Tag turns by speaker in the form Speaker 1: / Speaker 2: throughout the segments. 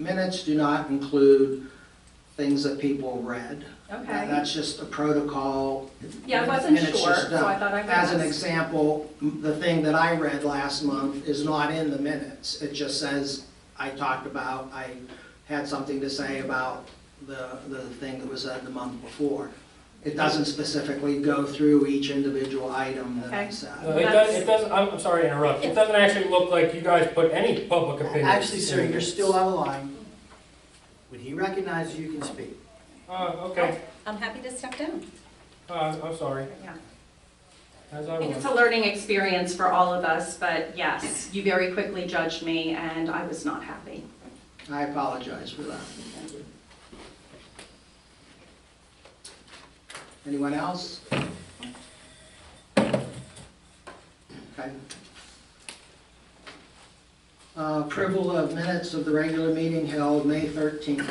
Speaker 1: Minutes do not include things that people read. That-
Speaker 2: Okay,
Speaker 1: That's just a protocol.
Speaker 2: yeah, I wasn't
Speaker 1: Minutes
Speaker 2: sure,
Speaker 1: just
Speaker 2: so I
Speaker 1: done.
Speaker 2: thought I would
Speaker 1: As an
Speaker 2: ask.
Speaker 1: example, m- the thing that I read last month is not in the minutes. It just says, I talked about, I had something to say about the, the thing that was said the month before. It doesn't specifically go through each individual item that I
Speaker 2: Okay.
Speaker 1: said.
Speaker 3: No, Uh, It does, it doesn't, I'm, I'm sorry to interrupt, it doesn't actually look like you guys put any public opinion.
Speaker 4: Uh, Actually, sir, you're still out of line. When he recognizes you, you can speak.
Speaker 3: Uh, okay,
Speaker 5: I'm happy to step down.
Speaker 3: uh, I'm sorry,
Speaker 2: Yeah.
Speaker 3: as I
Speaker 2: I think it's
Speaker 3: was.
Speaker 2: a learning experience for all of us, but yes, you very quickly judged me and I was not happy.
Speaker 1: I apologize for that. Anyone else? Okay. Uh, Approval of minutes of the regular meeting held May 13th.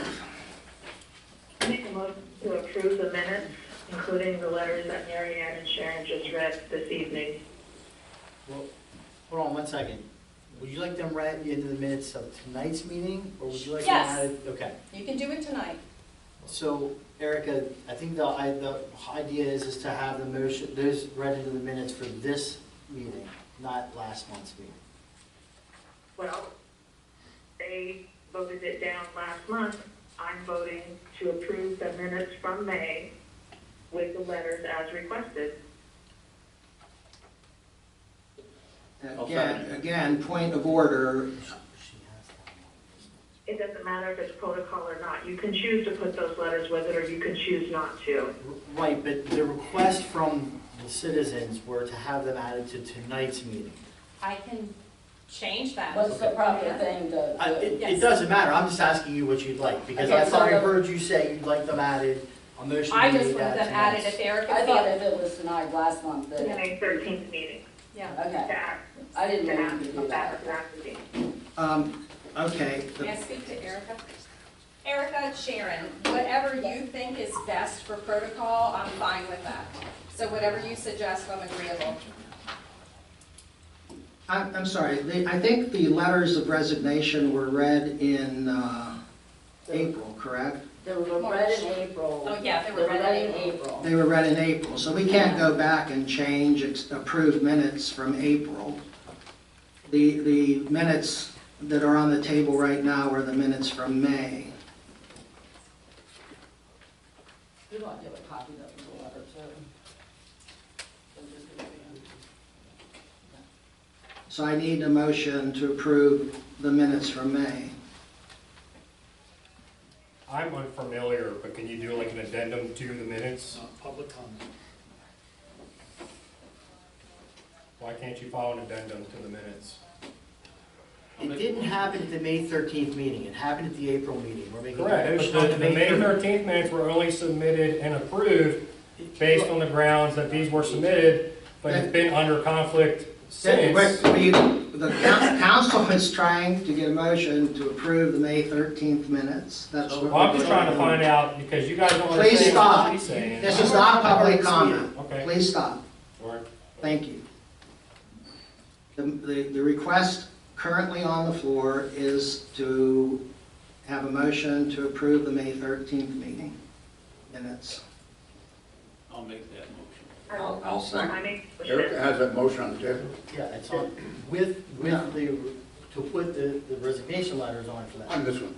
Speaker 6: Make a motion to approve the minutes, including the letters that Mary Ann and Sharon just read this evening.
Speaker 4: Well, Hold on one second. Would you like them read into the minutes of tonight's meeting, or would you like them
Speaker 5: Yes.
Speaker 4: added? Okay.
Speaker 5: You can do it tonight.
Speaker 4: So Erica, I think the, I, the idea is, is to have the motion, those read into the minutes for this meeting, not last month's meeting.
Speaker 6: Well, they voted it down last month. I'm voting to approve the minutes from May with the letters as requested.
Speaker 1: Again, again, point of order,
Speaker 4: She has that
Speaker 6: It doesn't matter if it's protocol or not. You can choose to put those letters with it, or you can choose not to.
Speaker 4: one. Right, but the request from the citizens were to have them added to tonight's meeting.
Speaker 5: I can change that.
Speaker 7: What's the proper thing to,
Speaker 4: I- It, it
Speaker 5: Yes.
Speaker 4: doesn't matter, I'm just asking you what you'd like, because I
Speaker 7: Okay, so
Speaker 4: thought I
Speaker 7: the-
Speaker 4: heard you say you'd like them added, a motion to
Speaker 5: I
Speaker 4: add
Speaker 5: just wanted them added if Erica
Speaker 7: I thought
Speaker 5: feels.
Speaker 7: if it was denied last month,
Speaker 6: The
Speaker 7: that,
Speaker 6: May 13th meeting,
Speaker 5: Yeah.
Speaker 6: to
Speaker 7: okay,
Speaker 6: act,
Speaker 7: I
Speaker 6: to
Speaker 7: didn't know
Speaker 6: act
Speaker 7: you could do that.
Speaker 6: about that meeting.
Speaker 1: um, okay. the-
Speaker 5: May I speak to Erica? Erica, Sharon, whatever you think is best for protocol, I'm fine with that. So whatever you suggest, I'm agreeable.
Speaker 1: I'm, I'm sorry, the, I think the letters of resignation were read in, uh, April, correct?
Speaker 7: They were read in April.
Speaker 5: Oh, yeah, they were read in
Speaker 7: April.
Speaker 1: They were read in April, so we can't go back and change ex- approved minutes from April. The, the minutes that are on the table right now are the minutes from May.
Speaker 7: You don't give a copy of the letter, too. They're just gonna be in.
Speaker 1: So I need a motion to approve the minutes from May.
Speaker 3: I'm unfamiliar, but can you do like an addendum to the minutes?
Speaker 8: Uh, public comment.
Speaker 3: Why can't you file an addendum to the minutes?
Speaker 4: It didn't happen at the May thirteenth meeting, it happened at the April meeting, we're making a
Speaker 3: Correct,
Speaker 4: motion
Speaker 3: but
Speaker 4: on
Speaker 3: the, the May thirteenth minutes were only submitted and approved based on the grounds that these were submitted, but it's been under conflict since.
Speaker 1: Wait, we- The coun- council is trying to get a motion to approve the May 13th minutes. That's what
Speaker 3: Well, I'm just
Speaker 1: we're
Speaker 3: trying to
Speaker 1: doing.
Speaker 3: find out, because you guys don't
Speaker 1: Please
Speaker 3: understand what
Speaker 1: stop.
Speaker 3: she's saying.
Speaker 1: This is not public comment.
Speaker 3: Okay,
Speaker 1: Please stop.
Speaker 3: all right.
Speaker 1: Thank you. The, the, the request currently on the floor is to have a motion to approve the May 13th meeting minutes.
Speaker 8: I'll make that motion.
Speaker 9: I'll, I'll
Speaker 6: I
Speaker 9: second.
Speaker 6: make a motion.
Speaker 9: Erica has that motion on the table.
Speaker 4: Yeah, it's on, with, with the, to put the the resignation letters on for
Speaker 9: On
Speaker 4: that,
Speaker 9: this one.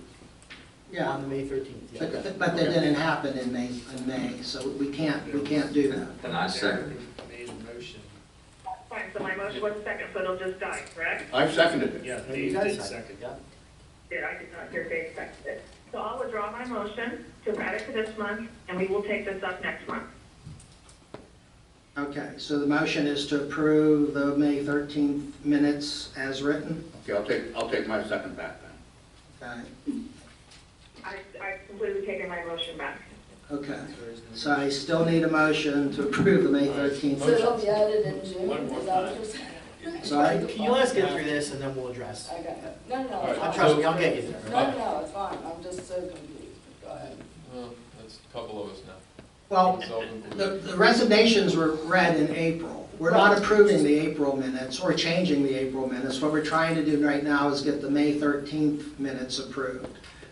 Speaker 4: on the May thirteenth, yeah.
Speaker 9: Okay.
Speaker 1: But, but that didn't happen in May, in May, so we can't, we can't do that.
Speaker 9: Then I second
Speaker 8: Made a motion.
Speaker 6: Fine, so my motion was second, so it'll just die, correct?
Speaker 9: I seconded it.
Speaker 8: Yeah,
Speaker 4: And
Speaker 8: Dave
Speaker 4: you guys signed
Speaker 8: did
Speaker 4: it,
Speaker 8: second.
Speaker 4: yeah.
Speaker 6: Did I did not hear Dave second it. So I'll withdraw my motion to add it to this month, and we will take this up next month.
Speaker 1: Okay, so the motion is to approve the May 13th minutes as written?
Speaker 9: Okay, I'll take, I'll take my second back then.
Speaker 1: Okay,
Speaker 6: I, I've completely taken my motion back.
Speaker 1: okay. So I still need a motion to approve the May 13th.
Speaker 7: So it'll be added in June,
Speaker 8: One more
Speaker 7: is that what you're saying?
Speaker 1: Sorry?
Speaker 4: Can you let us get through this and then we'll address?
Speaker 7: Okay, no, no,
Speaker 8: All
Speaker 7: it's
Speaker 8: right.
Speaker 4: I
Speaker 7: fine.
Speaker 4: trust me, I'll get you there.
Speaker 7: No, no, it's fine, I'm just so confused, go ahead.
Speaker 10: Well, that's a couple of us now.
Speaker 1: Well,
Speaker 10: It's all been
Speaker 1: the the resignations were read in April. We're not approving the April minutes or changing the April minutes. What we're trying to do right now is get the May 13th minutes approved.